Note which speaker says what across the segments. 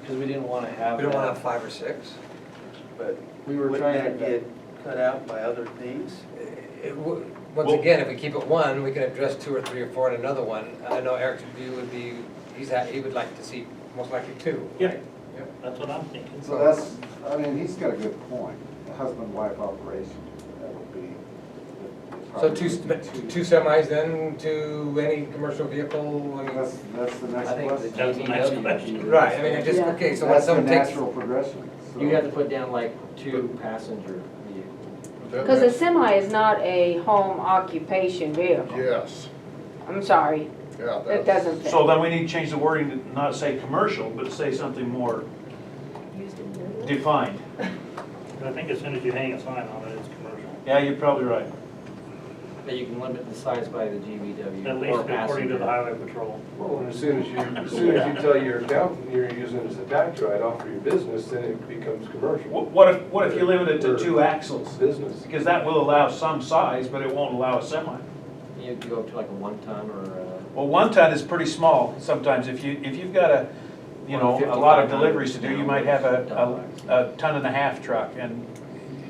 Speaker 1: because we didn't want to have
Speaker 2: We don't want to have
Speaker 1: that.
Speaker 2: five or six.
Speaker 3: But
Speaker 1: We were
Speaker 3: wouldn't
Speaker 1: trying
Speaker 3: that
Speaker 1: to,
Speaker 3: get cut out by other things?
Speaker 2: Eh, It wo- Once
Speaker 4: Well-
Speaker 2: again, if we keep it one, we can address two or three or four in another one. I know Eric's view would be, he's, ha- he would like to see most likely two,
Speaker 4: Yeah.
Speaker 2: right?
Speaker 4: That's what I'm thinking.
Speaker 5: So that's, I mean, he's got a good point, a husband-wife operation, that would be.
Speaker 2: So two, sp- two semis then, to any commercial vehicle, I mean,
Speaker 5: That's, that's the
Speaker 1: I
Speaker 5: next
Speaker 1: think the
Speaker 5: question.
Speaker 4: That's the next question.
Speaker 1: GVW.
Speaker 2: right, I mean, it just,
Speaker 6: Yeah.
Speaker 2: okay, so when
Speaker 5: That's the
Speaker 2: someone takes.
Speaker 5: natural progression, so.
Speaker 1: You have to put down like two passenger vehicles.
Speaker 6: Because a semi is not a home occupation vehicle.
Speaker 7: Yes,
Speaker 6: I'm sorry,
Speaker 7: yeah.
Speaker 6: it
Speaker 7: that's-
Speaker 6: doesn't fit.
Speaker 4: So then we need to change the wording to not say commercial, but say something more defined.
Speaker 8: I think as soon as you hang a sign on it, it's commercial.
Speaker 4: Yeah, you're probably right.
Speaker 1: That you can limit the size by the GVW.
Speaker 8: At
Speaker 1: or
Speaker 8: least according to
Speaker 1: passenger.
Speaker 8: the highway patrol.
Speaker 9: Well, and as soon as you, as soon as you tell your accountant you're using it as a tax write-off for your business, then it becomes
Speaker 4: Wh-
Speaker 9: commercial.
Speaker 4: What if, what if you limit it to two axles?
Speaker 9: Business.
Speaker 4: Because that will allow some size, but it won't allow a semi.
Speaker 1: You could go up to like a one ton or a.
Speaker 4: Well, one ton is pretty small sometimes. If you, if you've got a, you know, a lot of deliveries to do, you might have a, a, a ton and a half truck. And,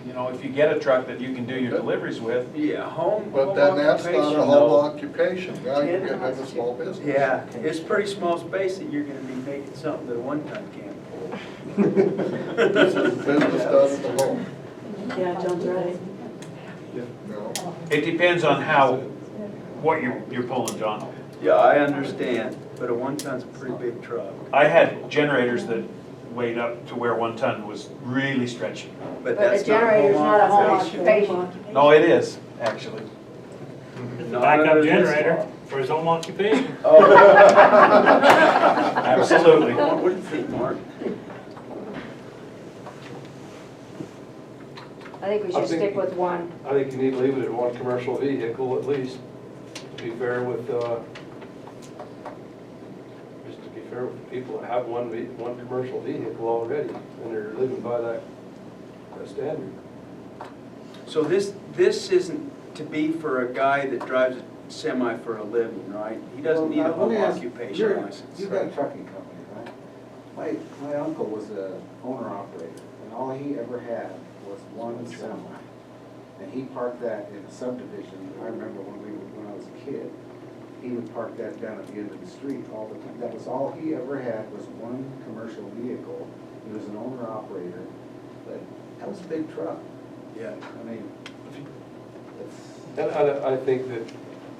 Speaker 4: you know, if you get a truck that you can do your deliveries with,
Speaker 3: Yeah, home.
Speaker 7: But then
Speaker 3: home
Speaker 7: that's not
Speaker 3: occupation,
Speaker 7: a
Speaker 3: though.
Speaker 7: whole occupation, now you're getting into small business.
Speaker 3: Yeah, it's pretty small space that you're gonna be making something that a one-ton can't hold.
Speaker 7: Business does the home,
Speaker 6: Yeah, John's right.
Speaker 7: no.
Speaker 4: it depends on how, what you're, you're pulling, John.
Speaker 3: Yeah, I understand, but a one-ton's a pretty big truck.
Speaker 4: I had generators that weighed up to where one ton was really stretchy.
Speaker 3: But
Speaker 6: But
Speaker 3: that's
Speaker 6: a
Speaker 3: not
Speaker 6: generator's not a home
Speaker 3: occupation.
Speaker 6: occupation.
Speaker 4: No, it is, actually.
Speaker 8: It's a
Speaker 3: Not
Speaker 8: backup
Speaker 3: under this
Speaker 8: generator
Speaker 3: law.
Speaker 8: for his home occupation.
Speaker 3: Oh,
Speaker 4: Absolutely.
Speaker 3: I wouldn't think, Mark.
Speaker 6: I think we
Speaker 9: I
Speaker 6: should
Speaker 9: think-
Speaker 6: stick with one.
Speaker 9: I think you need to leave it at one commercial vehicle at least, to be fair with, uh, just to be fair with the people that have one, ve- one commercial vehicle already, and they're living by that, that standard.
Speaker 3: So this, this isn't to be for a guy that drives a semi for a living, right? He doesn't need a
Speaker 5: Well, now, let
Speaker 3: home
Speaker 5: me ask, you're-
Speaker 3: occupation license.
Speaker 5: You've got a trucking company, right? My, my uncle was a owner operator, and all he ever had was one semi. And he parked that in a subdivision, I remember when we, were- when I was a kid, he would park that down at the end of the street all the time. That was all he ever had, was one commercial vehicle, he was an owner operator, but that was a big truck,
Speaker 3: Yeah.
Speaker 5: I mean, it's.
Speaker 9: And I, I think that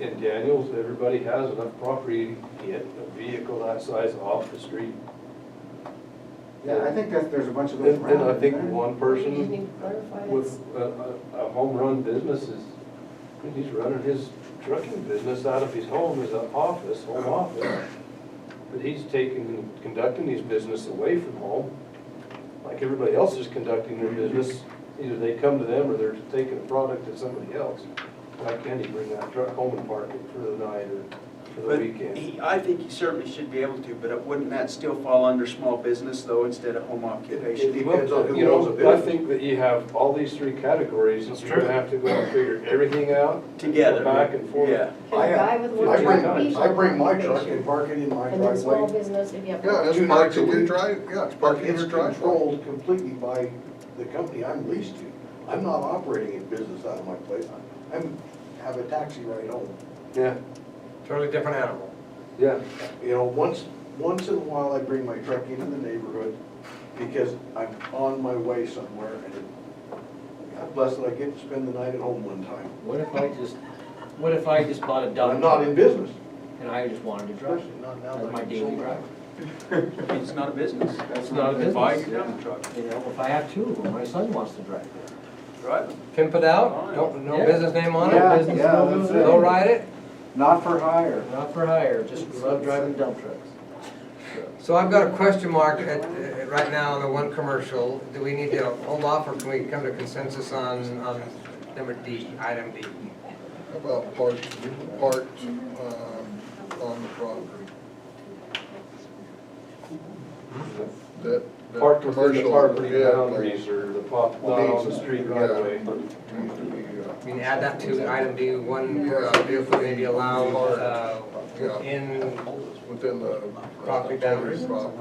Speaker 9: in Daniels, everybody has enough property to get a vehicle that size off the street.
Speaker 5: Yeah, I think that there's a bunch of those
Speaker 9: Then
Speaker 5: around.
Speaker 9: then I think
Speaker 5: isn't there?
Speaker 9: one person with a, a- a home run business is, I mean, he's running his trucking business out of his home as an office, home office. But he's taking, conducting his business away from home, like everybody else is conducting their business. Either they come to them or they're taking a product to somebody else. Why can't he bring that truck home and park it for the night or for the
Speaker 3: But
Speaker 9: weekend?
Speaker 3: he, I think he certainly should be able to, but it- wouldn't that still fall under small business though, instead of home occupation?
Speaker 9: Well, you know, I think that you have all these three categories, and
Speaker 8: That's
Speaker 9: you're gonna
Speaker 8: true.
Speaker 9: have to go and figure everything out. go
Speaker 3: Together.
Speaker 9: Back and forth.
Speaker 3: Yeah.
Speaker 10: Can a guy with
Speaker 9: Well,
Speaker 10: one
Speaker 9: I bring-
Speaker 10: truck be?
Speaker 9: I
Speaker 5: park it in my
Speaker 10: And then small business, if you have.
Speaker 7: Yeah, it's parked in your drive, yeah, it's parked in your driveway.
Speaker 5: completely by the company I'm leased to. I'm not operating a business out of my place. I'm, have a taxi ride home.
Speaker 9: Yeah,
Speaker 2: Totally different animal.
Speaker 9: yeah.
Speaker 5: You know, once, once in a while, I bring my truck into the neighborhood because I'm on my way somewhere and it- God bless it, I get to spend the night at home one time.
Speaker 1: What if I just, what if I just bought a
Speaker 5: And I'm
Speaker 1: dump
Speaker 5: not
Speaker 1: truck
Speaker 5: in business,
Speaker 1: and I just wanted to drive
Speaker 5: especially
Speaker 1: it?
Speaker 5: not now that
Speaker 1: That's my
Speaker 5: I'm
Speaker 1: daily
Speaker 5: sober.
Speaker 1: drive,
Speaker 3: It's not a business.
Speaker 1: It's not a
Speaker 3: Buy
Speaker 1: business,
Speaker 3: your dump truck,
Speaker 1: you know, if I have two of them, my son wants to drive it.
Speaker 3: drive it.
Speaker 2: Pimp it out, don't, no
Speaker 1: Yeah.
Speaker 2: business name on
Speaker 5: Yeah,
Speaker 2: it,
Speaker 5: yeah, that's it.
Speaker 2: don't ride it.
Speaker 5: Not for hire.
Speaker 1: Not for hire, just love driving dump trucks.
Speaker 2: So I've got a question mark at, at- right now on the one commercial. Do we need to hold off or can we come to consensus on, on number D, item D?
Speaker 7: How About parked, parked, um, on the property. That, that
Speaker 9: Parked within the
Speaker 7: commercial,
Speaker 9: property
Speaker 7: yeah,
Speaker 9: boundaries
Speaker 7: needs
Speaker 9: or the pop, not on the street right away.
Speaker 7: to be, uh,
Speaker 2: I mean, add that to item D, one commercial vehicle may be allowed, uh,
Speaker 7: Yeah.
Speaker 2: in
Speaker 7: within the. uh,
Speaker 2: Property boundaries.
Speaker 7: Property.